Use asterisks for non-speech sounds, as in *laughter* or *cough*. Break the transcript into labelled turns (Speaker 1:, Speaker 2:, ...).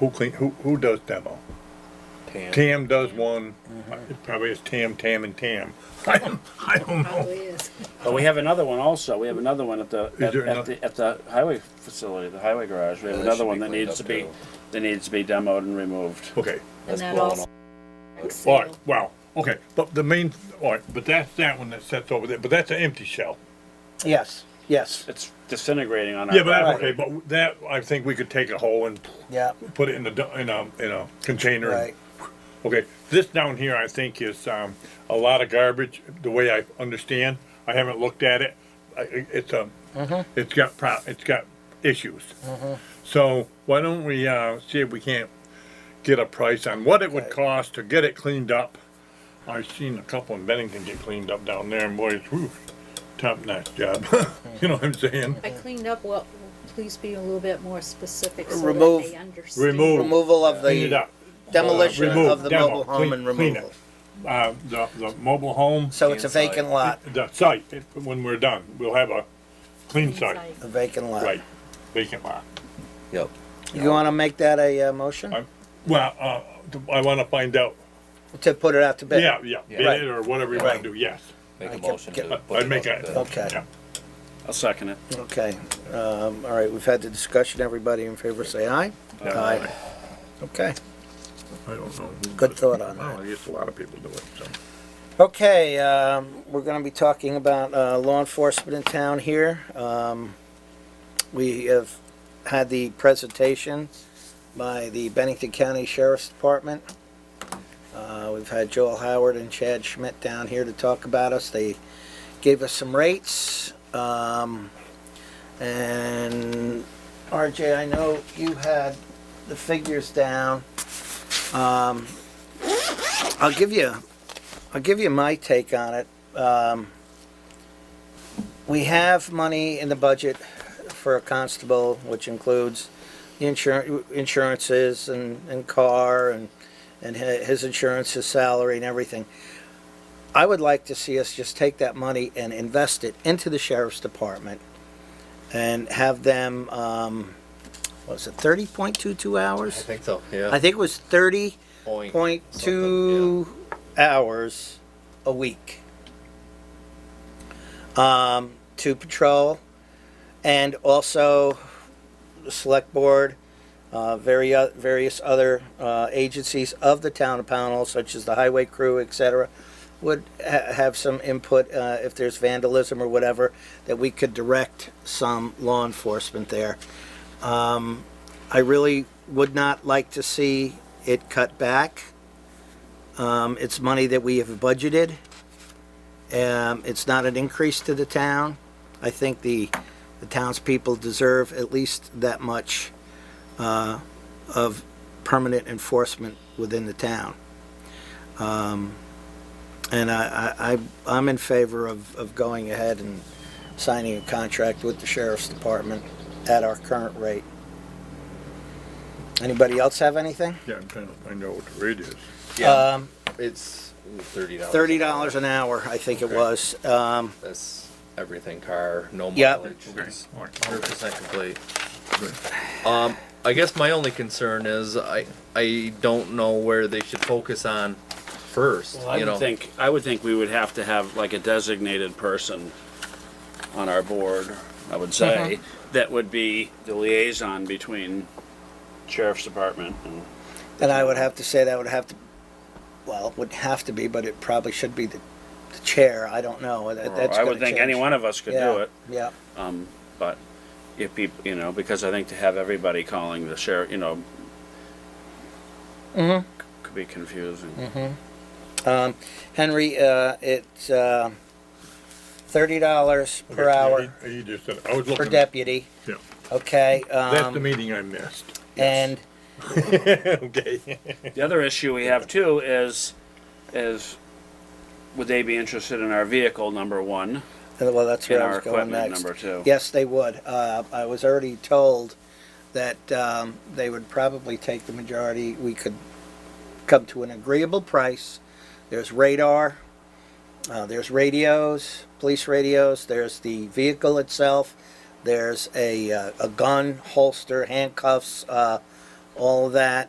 Speaker 1: Who clean, who, who does demo?
Speaker 2: Tam.
Speaker 1: Tam does one,
Speaker 3: Mm-hmm.
Speaker 1: it probably is Tam, Tam and Tam. I don't, I don't know.
Speaker 4: Probably is.
Speaker 5: But we have another one also, we have another one at the,
Speaker 1: there
Speaker 5: at at
Speaker 1: another-
Speaker 5: the, at the highway facility, the highway garage, we have
Speaker 2: Yeah, Oh, that
Speaker 5: another
Speaker 2: should be
Speaker 5: one that
Speaker 2: cleaned
Speaker 5: needs to
Speaker 2: up,
Speaker 5: be,
Speaker 2: too.
Speaker 5: that needs to be demoed and removed.
Speaker 1: Okay,
Speaker 4: And
Speaker 2: That's
Speaker 4: that
Speaker 2: blowing
Speaker 4: also.
Speaker 1: all right, wow, okay, but the main, all right, but that's that one that sits over there, but that's an empty shell.
Speaker 3: Yes, yes,
Speaker 5: It's disintegrating on our.
Speaker 1: Yeah, but that's okay,
Speaker 3: Right.
Speaker 1: but that, I think we could take a hole and
Speaker 3: yeah,
Speaker 1: put it in the, du- in a, in a container. and-
Speaker 3: right.
Speaker 1: Okay, this down here, I think is, um, a lot of garbage, the way I understand, I haven't looked at it. I, it- it's a, it's got pro, it's got issues. So why don't we, uh, see if we can't get a price on what it would
Speaker 3: Okay.
Speaker 1: cost to get it cleaned up? I've seen a couple in Bennington get cleaned up down there and boy, it's, whew, top notch job, *laughs* you know what I'm saying?
Speaker 4: I cleaned up, well, please be a little bit more specific so that
Speaker 3: Remove-
Speaker 4: they understand.
Speaker 1: Remove.
Speaker 3: Removal of
Speaker 1: Clean it
Speaker 3: the
Speaker 1: up.
Speaker 3: demolition
Speaker 1: Uh, remove,
Speaker 3: of the
Speaker 1: demo,
Speaker 3: mobile
Speaker 1: clean-
Speaker 3: home and
Speaker 1: clean
Speaker 3: removal.
Speaker 1: it. Uh, the, the mobile home.
Speaker 3: So it's a
Speaker 2: Inside.
Speaker 3: vacant lot,
Speaker 1: The site, it- when we're done, we'll have a clean site,
Speaker 4: Like,
Speaker 3: a vacant lot.
Speaker 1: right, vacant lot.
Speaker 2: Yep.
Speaker 3: You wanna make that a, uh, motion?
Speaker 1: I- Well, uh, I wanna find out,
Speaker 3: To put it out to bid?
Speaker 1: yeah, yeah, bid
Speaker 3: Right.
Speaker 1: it or whatever you wanna
Speaker 3: Right.
Speaker 1: do, yes.
Speaker 2: Make a
Speaker 3: can
Speaker 2: motion
Speaker 3: get-
Speaker 2: to. put
Speaker 1: I'd
Speaker 2: it
Speaker 1: make
Speaker 2: up
Speaker 1: a-
Speaker 2: there.
Speaker 3: Okay,
Speaker 1: Yeah.
Speaker 5: I'll second it.
Speaker 3: okay. Um, all right, we've had the discussion. Everybody in favor say aye? Aye. Okay,
Speaker 1: I don't know. who
Speaker 3: good
Speaker 1: does-
Speaker 3: thought on that.
Speaker 1: Well, I guess a lot of people do it, so.
Speaker 3: Okay, um, we're gonna be talking about, uh, law enforcement in town here. Um, we have had the presentation by the Bennington County Sheriff's Department. Uh, we've had Joel Howard and Chad Schmidt down here to talk about us. They gave us some rates. Um, and RJ, I know you had the figures down. Um, I'll give you I'll give you my take on it. Um, we have money in the budget for a constable, which includes the insurance, insurances and, and car and, and hi- his insurance, his salary and everything. I would like to see us just take that money and invest it into the sheriff's department and have them, um, what was it, thirty point two two
Speaker 2: I
Speaker 3: hours?
Speaker 2: think so, yeah.
Speaker 3: I think it was thirty
Speaker 2: Point
Speaker 3: point
Speaker 2: something,
Speaker 3: two hours a week um, to patrol and also the select board uh, very o- various other uh, agencies of the town of Pownell such as the highway crew etc would ha- have some input uh, if there's vandalism or whatever that we could direct some law enforcement there I really would not like to see it cut back. Um, it's money that we have budgeted. Um, it's not an increase to the town. I think the, the townspeople deserve at least that much, uh, of permanent enforcement within the town. Um, and I, I, I- I'm in favor of, of going ahead and signing a contract with the sheriff's department at our current rate. Anybody else have anything?
Speaker 1: Yeah, I'm trying to find out what the rate is.
Speaker 2: Yeah,
Speaker 3: Um,
Speaker 2: it's thirty dollars.
Speaker 3: Thirty dollars an hour, I think it
Speaker 2: Okay.
Speaker 3: was. Um,
Speaker 2: That's everything car, no
Speaker 3: Yep.
Speaker 2: mileage.
Speaker 1: Okay,
Speaker 2: It's
Speaker 1: all right.
Speaker 2: Hundred percent complete. Um, I guess my only concern is I, I don't know where they should focus on first,
Speaker 5: Well, I
Speaker 2: you know?
Speaker 5: would think, I would think we would have to have like a designated person on our board, I would say,
Speaker 2: Mm-hmm.
Speaker 5: that would be the liaison between sheriff's department and,
Speaker 3: and I would have to say that would have to, well, it would have to be, but it probably should be the, the chair. I don't know. That,
Speaker 5: or
Speaker 3: that's
Speaker 5: I
Speaker 3: gonna
Speaker 5: would think
Speaker 3: change.
Speaker 5: any one of us could
Speaker 3: yeah,
Speaker 5: do it.
Speaker 3: Yeah.
Speaker 5: Um, but if people, you know, because I think to have everybody calling the sheriff, you know, could be confusing.
Speaker 3: Um, Henry, uh, it's uh, thirty dollars per
Speaker 1: Okay,
Speaker 3: hour
Speaker 1: he- He just said, I was looking.
Speaker 3: per deputy.
Speaker 1: Yeah,
Speaker 3: Okay.
Speaker 1: that's the
Speaker 3: Um,
Speaker 1: meeting I missed.
Speaker 3: and
Speaker 1: *laughs* Okay.
Speaker 5: The other issue we have too is, is would they be interested in our vehicle, number one,
Speaker 3: well, that's
Speaker 5: and
Speaker 3: where I
Speaker 5: our
Speaker 3: was going
Speaker 5: equipment,
Speaker 3: next.
Speaker 5: number two?
Speaker 3: Yes, they would. Uh, I was already told that um, they would probably take the majority. We could come to an agreeable price. There's radar, uh, there's radios, police radios, there's the vehicle itself, there's a, uh, a gun, holster, handcuffs, uh, all of that.